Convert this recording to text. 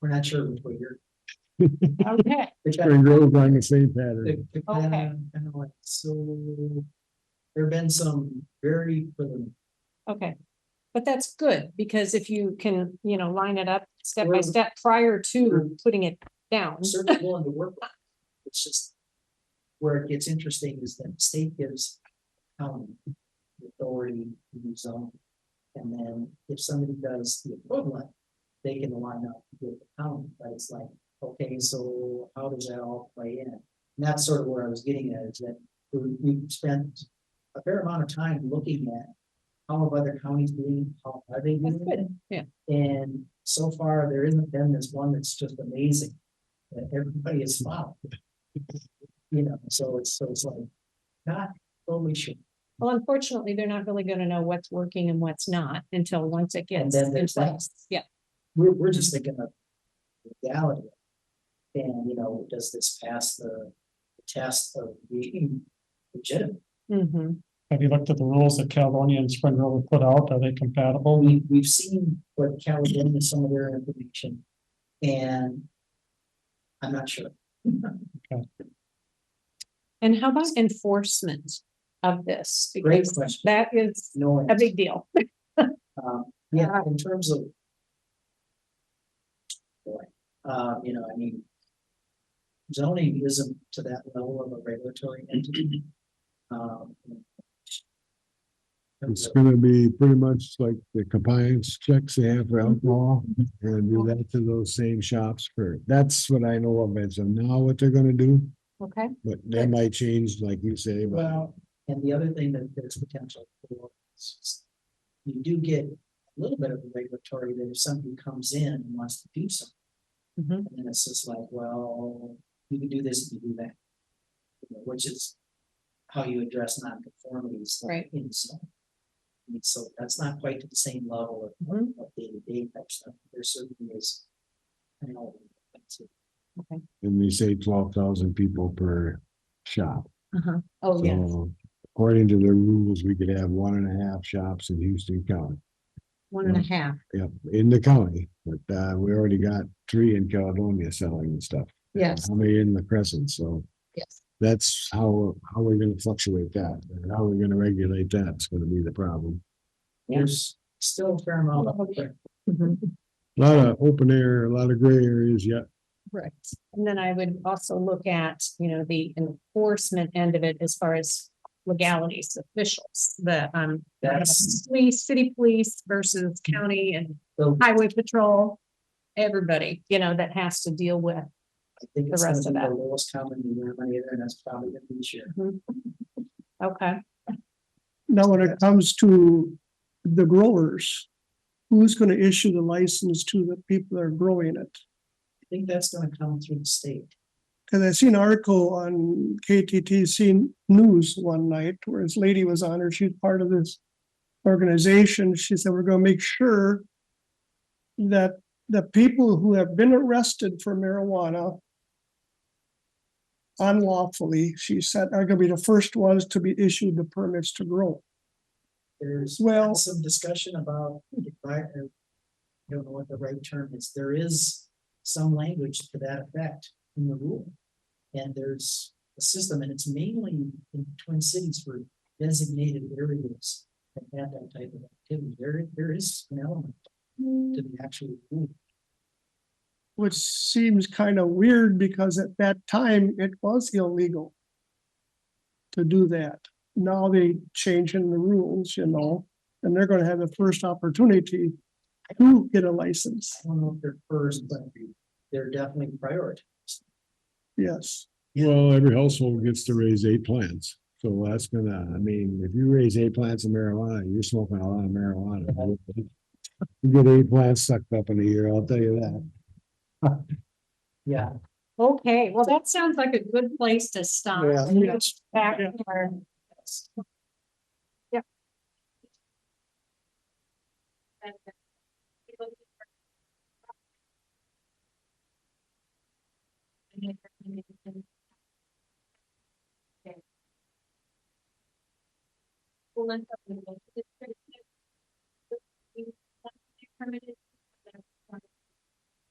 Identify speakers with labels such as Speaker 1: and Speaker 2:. Speaker 1: We're not sure which way you're.
Speaker 2: Okay,
Speaker 1: the cat-
Speaker 3: Spring Grove's on the same pattern.
Speaker 1: the- the
Speaker 2: Okay.
Speaker 1: kind of like, So there have been some very preliminary.
Speaker 2: okay. But that's good, because if you can, you know, line it up step by
Speaker 1: Sure.
Speaker 2: step prior to putting it down.
Speaker 1: certainly willing to work. on it. It's just where it gets interesting is that the state gives county the authority to do zone. And then if somebody does the equivalent, they can line up with the county, but it's like, okay, so how does that all play in? And that's sort of where I was getting at, is that we, we've spent a fair amount of time looking at how have other counties doing, how are they
Speaker 2: That's
Speaker 1: doing it?
Speaker 2: good, yeah.
Speaker 1: And so far, there isn't been this one that's just amazing, that everybody is followed. You know, so it's, so it's like, not totally sure.
Speaker 2: Well, unfortunately, they're not really gonna know what's working and what's not until once it
Speaker 1: And
Speaker 2: gets
Speaker 1: then
Speaker 2: in
Speaker 1: there's that,
Speaker 2: place. Yeah,
Speaker 1: we're, we're just thinking of legality. And, you know, does this pass the test of being legitimate?
Speaker 2: hmm
Speaker 4: Have you looked at the rules that Caledonia and Spring Grove have put out? Are they compatible?
Speaker 1: We, we've seen what Caledonia, some of their information, and I'm not sure.
Speaker 2: And how about enforcement of this?
Speaker 1: Great
Speaker 2: Because
Speaker 1: question.
Speaker 2: That is
Speaker 1: No.
Speaker 2: a
Speaker 1: answer.
Speaker 2: big deal.
Speaker 1: Um, yeah, in terms of. Boy, uh, you know, I mean. Zoning isn't to that level of a regulatory entity. Um. in terms
Speaker 3: It's
Speaker 1: of-
Speaker 3: gonna be pretty much like the compliance checks they have
Speaker 4: Mhm.
Speaker 3: for alcohol. And do that to those same shops for, that's what I know of as of now, what they're gonna do,
Speaker 2: Okay,
Speaker 3: but they might change, like you say, but.
Speaker 1: Well, and the other thing that there's potential for is just you do get a little bit of a regulatory that if somebody comes in and wants to do something.
Speaker 2: Mhm.
Speaker 1: And then it's just like, well, you can do this, you can do that. You know, Which is how you address nonconformities.
Speaker 2: Right.
Speaker 1: In some. I mean, so that's not quite to the same level of-
Speaker 2: Mhm.
Speaker 1: of day to day type stuff. There certainly is. I know. that's it.
Speaker 3: And they say twelve thousand people per shop.
Speaker 2: uh-huh. Oh, yeah.
Speaker 3: So according to the rules, we could have one and a half shops in Houston County.
Speaker 2: One and a half.
Speaker 3: Yep, in the county, but uh, we already got three in Caledonia selling and stuff.
Speaker 2: Yes.
Speaker 3: How many in the Crescent, so.
Speaker 2: Yes.
Speaker 3: That's how, how we're gonna fluctuate that, and how we're gonna regulate that is gonna be the problem.
Speaker 1: There's still a fair amount of.
Speaker 2: Mhm.
Speaker 3: A Lot of open air, a lot of gray areas yet.
Speaker 2: Right. And then I would also look at, you know, the enforcement end of it as far as legalities, officials, the, um,
Speaker 1: That's-
Speaker 2: police, city police versus county and
Speaker 1: So
Speaker 2: highway patrol, everybody, you know, that has to deal with.
Speaker 1: I think
Speaker 2: the
Speaker 1: it's gonna
Speaker 2: rest of
Speaker 1: be the
Speaker 2: that.
Speaker 1: lowest common denominator, and that's probably gonna be share.
Speaker 2: Okay.
Speaker 5: Now, when it comes to the growers, who's gonna issue the license to the people that are growing it?
Speaker 1: I think that's gonna come through the state.
Speaker 5: Cause I seen an article on KTTC News one night where this lady was on her, she's part of this organization. She said, we're gonna make sure that the people who have been arrested for marijuana unlawfully, she said, are gonna be the first ones to be issued the permits to grow.
Speaker 1: There's
Speaker 5: Well-
Speaker 1: some discussion about, if I, I don't know what the right term is, there is some language to that effect in the rule. And there's a system, and it's mainly in Twin Cities for designated areas that have that type of activity. There, there is an element to the actual rule.
Speaker 5: Which seems kind of weird because at that time it was illegal. To do that. Now they changing the rules, you know, and they're gonna have the first opportunity to get a license.
Speaker 1: I don't know if they're first, but they're definitely prioritized.
Speaker 5: Yes,
Speaker 3: Well, every household gets to raise eight plants, so that's gonna, I mean, if you raise eight plants of marijuana, you're smoking a lot of marijuana. You get eight plants sucked up in a year, I'll tell you that.
Speaker 1: Yeah,
Speaker 2: Okay, well, that sounds like a good place to stop.
Speaker 3: Yeah.
Speaker 2: and go Back to our- Yep.